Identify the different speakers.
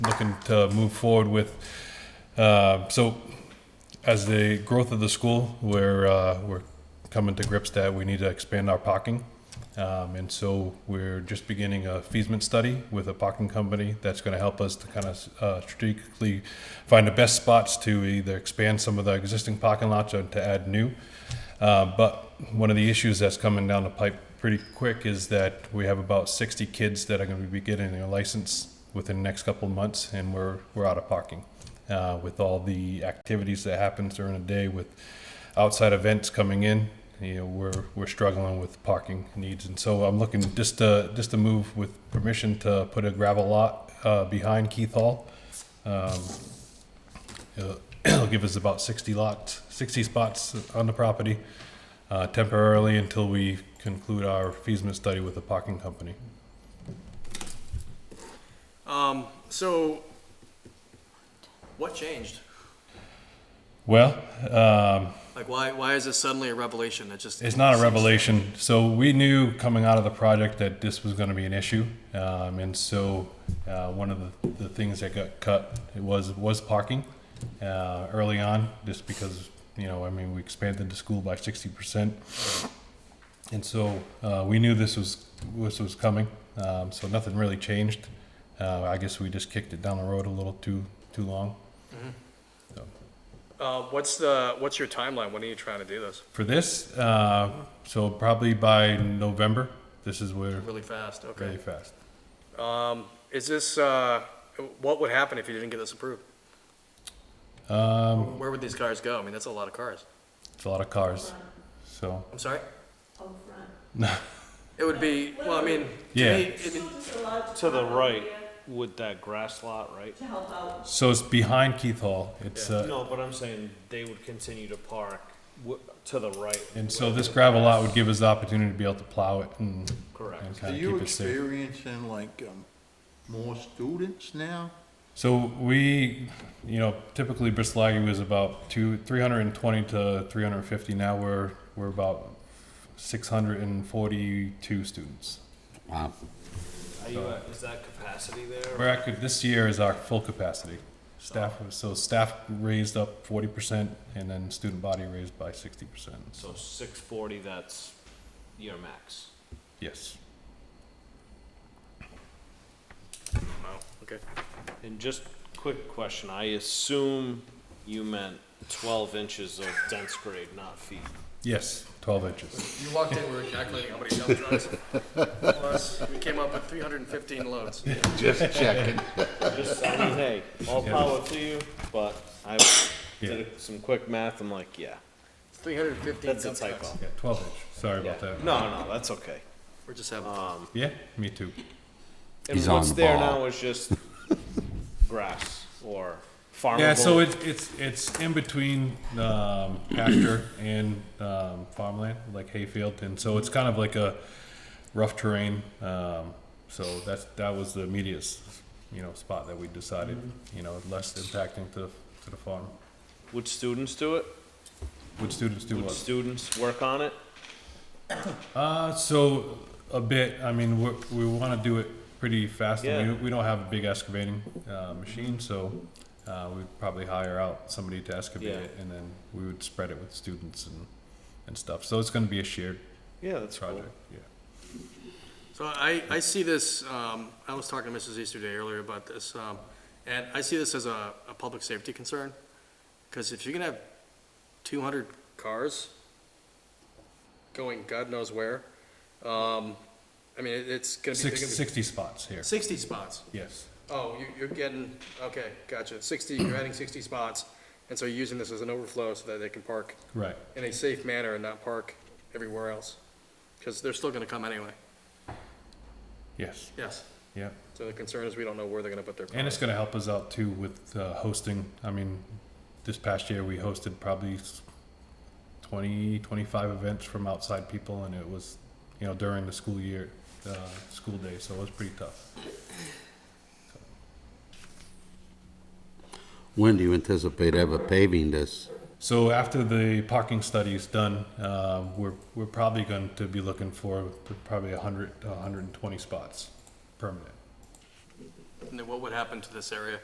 Speaker 1: looking to move forward with. Uh, so, as the growth of the school, we're uh, we're coming to grips that we need to expand our parking, um, and so we're just beginning a feasment study with a parking company that's going to help us to kind of uh, strategically find the best spots to either expand some of the existing parking lots or to add new. Uh, But one of the issues that's coming down the pipe pretty quick is that we have about 60 kids that are going to be getting their license within the next couple of months, and we're, we're out of parking. Uh, With all the activities that happens during the day with outside events coming in, you know, we're, we're struggling with parking needs. And so I'm looking just to, just to move with permission to put a gravel lot uh, behind Keith Hall. Um, It'll it'll give us about 60 lots, 60 spots on the property uh, temporarily until we conclude our feasment study with the parking company.
Speaker 2: Um, so, what changed?
Speaker 1: Well, um,
Speaker 2: Like, why, why is this suddenly a revelation? That just
Speaker 1: It's not a revelation. So we knew coming out of the project that this was going to be an issue, um, and so uh, one of the, the things that got cut was was parking uh, early on, just because you know I mean we expanded the school by sixty percent, and so uh, we knew this was this was coming. Um, so nothing really changed. Uh, I guess we just kicked it down the road a little too too long.
Speaker 2: Uh, what's the what's your timeline? When are you trying to do this?
Speaker 1: For this, uh, so probably by November, this is where
Speaker 2: Really fast. Okay.
Speaker 1: really fast.
Speaker 2: Is this uh, what would happen if you didn't get this approved? Um, Where would these cars go? I mean, that's a lot of cars.
Speaker 1: It's a lot of cars. So,
Speaker 2: I'm sorry.
Speaker 3: Out front.
Speaker 2: It would be. Well, I mean, to
Speaker 1: Yeah.
Speaker 2: me, it-
Speaker 3: Just a large
Speaker 4: To the
Speaker 3: truck
Speaker 4: right
Speaker 3: here
Speaker 4: with that grass lot, right?
Speaker 3: To help out.
Speaker 1: so it's behind Keith Hall. It's uh,
Speaker 4: No, but I'm saying they would continue to park w- to the right.
Speaker 1: and so this gravel lot would give us the opportunity to be able to plow it and,
Speaker 4: Correct.
Speaker 1: and
Speaker 5: Are
Speaker 1: kind of
Speaker 5: you
Speaker 1: keep it safe.
Speaker 5: experiencing like um, more students now?
Speaker 1: So we, you know, typically Bristol Aggie was about two, 320 to 350. Now we're we're about 642 students.
Speaker 4: Are you at, is that capacity there?
Speaker 1: We're actually this year is our full capacity. Staff so staff raised up 40 percent, and then student body raised by 60 percent. So
Speaker 4: So six forty, that's your max.
Speaker 1: yes.
Speaker 2: wow. Okay.
Speaker 4: And just quick question, I assume you meant twelve inches of dense grade, not feet.
Speaker 1: Yes, 12 inches.
Speaker 2: You walked in. We were calculating how many dump trucks. Plus, we came up with 315 loads.
Speaker 6: Just checking.
Speaker 4: Just, I mean, hey, all power to you, but I did some quick math, I'm like, yeah,
Speaker 2: 315
Speaker 4: that's a
Speaker 2: dump trucks.
Speaker 4: typo.
Speaker 1: Yeah, 12 inch. Sorry about that.
Speaker 4: No, no, that's okay.
Speaker 2: We're just
Speaker 4: Uh,
Speaker 2: having.
Speaker 1: Yeah, me too.
Speaker 4: And
Speaker 6: He's
Speaker 4: what's
Speaker 6: on
Speaker 4: there
Speaker 6: ball.
Speaker 4: now is just grass or farmable.
Speaker 1: Yeah, so it's it's it's in between um, pasture and um, farmland, like hayfield, and so it's kind of like a rough terrain. Um, so that's that was the immediate, s- you know, spot that we decided, you know, less impacting to to the farm.
Speaker 4: Would students do it?
Speaker 1: Would students do
Speaker 4: Would
Speaker 1: what?
Speaker 4: students work on it?
Speaker 1: Uh, so a bit. I mean, we're, we want to do it pretty fast. and
Speaker 4: Yeah.
Speaker 1: We, we don't have a big excavating uh, machine, so uh, we'd probably hire out somebody to excavate
Speaker 4: Yeah.
Speaker 1: it, and then we would spread it with students and, and stuff. So it's going to be a shared
Speaker 4: Yeah, that's
Speaker 1: project.
Speaker 2: So I, I see this, um, I was talking to Mrs. Easterday earlier about this, um, and I see this as a, a public safety concern. Cause if you're gonna have two hundred cars going God knows where, um, I mean, it- it's
Speaker 1: Yeah.
Speaker 2: gonna be, they're
Speaker 1: Six,
Speaker 2: gonna be-
Speaker 1: 60 spots here.
Speaker 2: sixty spots.
Speaker 1: Yes.
Speaker 2: Oh, you, you're getting, okay, gotcha. Sixty, you're adding sixty spots, and so you're using this as an overflow so that they can park
Speaker 1: Right.
Speaker 2: in a safe manner and not park everywhere else. Cause they're still gonna come anyway.
Speaker 1: Yes.
Speaker 2: Yes.
Speaker 1: Yeah.
Speaker 2: So the concern is we don't know where they're gonna put their
Speaker 1: And
Speaker 2: cars.
Speaker 1: it's going to help us out too with uh, hosting. I mean, this past year we hosted probably s- 20, 25 events from outside people, and it was, you know, during the school year, uh, school day, so it was pretty tough.
Speaker 6: When do you anticipate ever paving this?
Speaker 1: So after the parking study is done, uh, we're, we're probably going to be looking for probably 100 to 120 spots permanent.
Speaker 2: And then what would happen to this area?